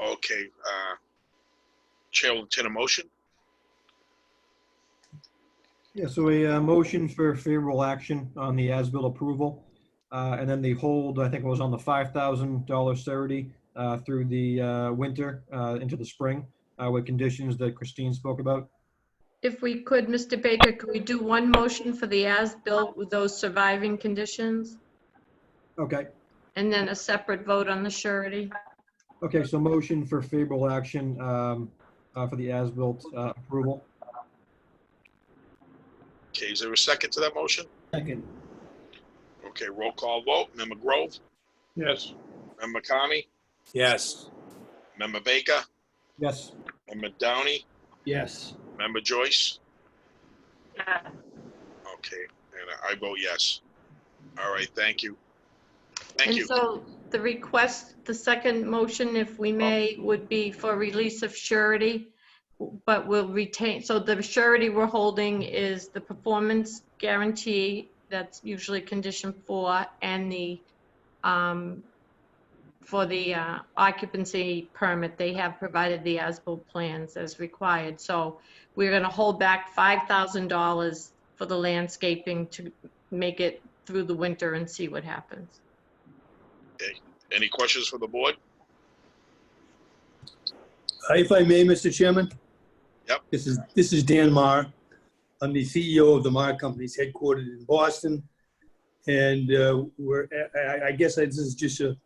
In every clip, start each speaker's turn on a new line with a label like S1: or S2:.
S1: Okay, uh, Chair will entertain a motion.
S2: Yeah, so a uh, motion for favorable action on the as-built approval. uh, And then the hold, I think it was on the $5,000 surety uh, through the uh, winter uh, into the spring uh, with conditions that Christine spoke about.
S3: If we could, Mr. Baker, could we do one motion for the as-built with those surviving conditions?
S2: Okay,
S3: And then a separate vote on the surety?
S2: okay, so motion for favorable action um, uh, for the as-built uh, approval.
S1: Okay, is there a second to that motion?
S4: Second,
S1: Okay, roll call vote. Member Grove,
S5: Yes.
S1: Member Carney,
S5: Yes.
S1: Member Baker,
S2: Yes,
S1: Member Downey,
S4: yes.
S1: Member Joyce? Okay, and I vote yes. All right, thank you. Thank you.
S3: And so the request, the second motion, if
S1: Oh.
S3: we may, would be for release of surety, but we will retain, so the surety we're holding is the performance guarantee, that's usually condition four, and the, um, for the uh, occupancy permit, they have provided the as-built plans as required. So we're gonna hold back $5,000 for the landscaping to make it through the winter and see what happens.
S1: Any questions for the board?
S4: Uh, If I may, Mr. Chairman?
S1: Yep.
S4: This is, this is Dan Marr. I'm the CEO of the Marr Companies headquartered in Boston. And uh, we're, I- I, I guess this is just a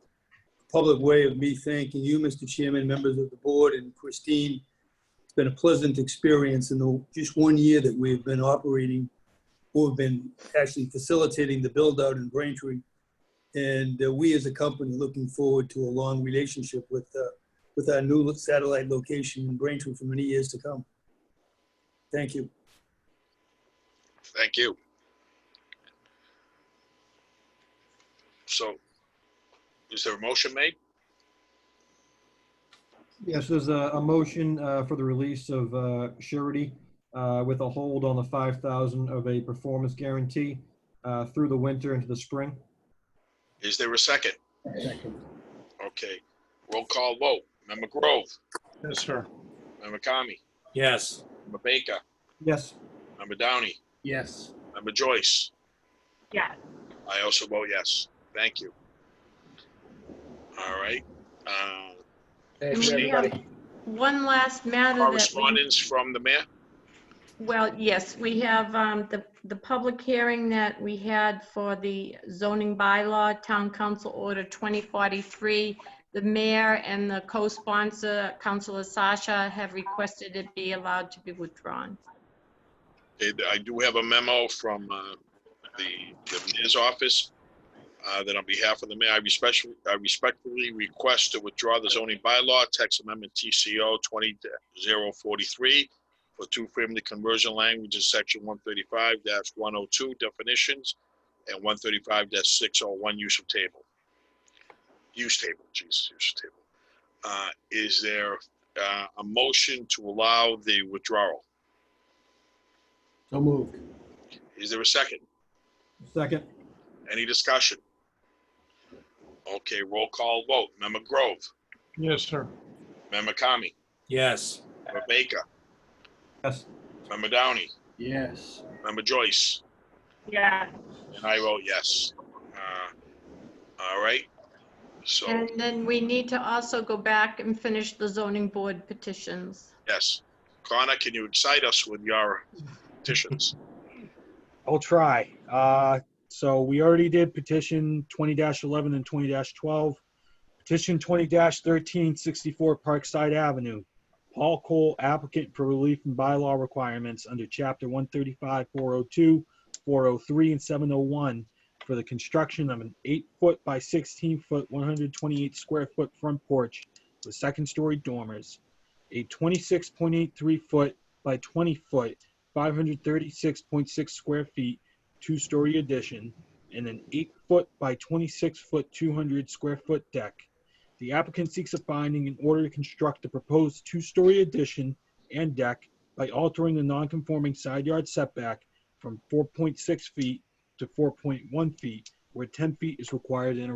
S4: public way of me thanking you, Mr. Chairman, members of the board, and Christine. It's been a pleasant experience in the, just one year that we've been operating, or have been actually facilitating the build-out in Braintree. And uh, we, as a company, looking forward to a long relationship with uh, with our new satellite location in Braintree for many years to come. Thank you.
S1: Thank you. So, is there a motion made?
S2: yes, there's a, a motion uh, for the release of uh, surety uh, with a hold on the 5,000 of a performance guarantee uh, through the winter into the spring.
S1: Is there a second? Okay, roll call vote. Member Grove,
S5: Yes, sir.
S1: Member Kami,
S5: Yes.
S1: Member Baker,
S2: Yes.
S1: Member Downey,
S4: Yes.
S1: Member Joyce.
S3: Yes.
S1: I also vote yes. Thank you. All right. uh,
S3: Thanks, everybody. One last matter that we,
S1: Correspondence from the mayor?
S3: well, yes, we have um, the, the public hearing that we had for the zoning bylaw, Town Council Order 2043. The mayor and the co-sponsor, Councilor Sasha, have requested it be allowed to be withdrawn.
S1: Okay, I do have a memo from uh, the the mayor's office uh, that on behalf of the mayor, I respectfully, I respectfully request to withdraw the zoning bylaw, text amendment TCO 20043 for two-family conversion language in section 135-102 definitions and 135-601 use of table. Use table, Jesus, use of table. Uh, Is there uh, a motion to allow the withdrawal?
S4: So moved.
S1: Is there a second?
S2: Second.
S1: Any discussion? Okay, roll call vote. Member Grove,
S5: Yes, sir.
S1: Member Kami,
S5: Yes.
S1: Member Baker,
S2: Yes.
S1: Member Downey,
S4: Yes.
S1: Member Joyce,
S3: Yeah.
S1: and I vote yes. Uh, All right, so,
S3: And then we need to also go back and finish the zoning board petitions.
S1: yes. Connor, can you excite us with your petitions?
S6: I'll try. Uh, so we already did petition twenty eleven and twenty twelve. Petition twenty 13 64 Parkside Avenue. Paul Cole applicant for relief from bylaw requirements under chapter 135, 402, 403, and seven oh one for the construction of an eight-foot by sixteen-foot, one hundred twenty-eight square foot front porch with second-story dormers, a twenty-six point eight-three foot by twenty-foot 536.6 square feet, two-story addition, and an eight-foot by 26-foot, 200 square foot deck. The applicant seeks a finding in order to construct the proposed two-story addition and deck by altering the non-conforming side yard setback from 4.6 feet to 4.1 feet, where 10 feet is required in a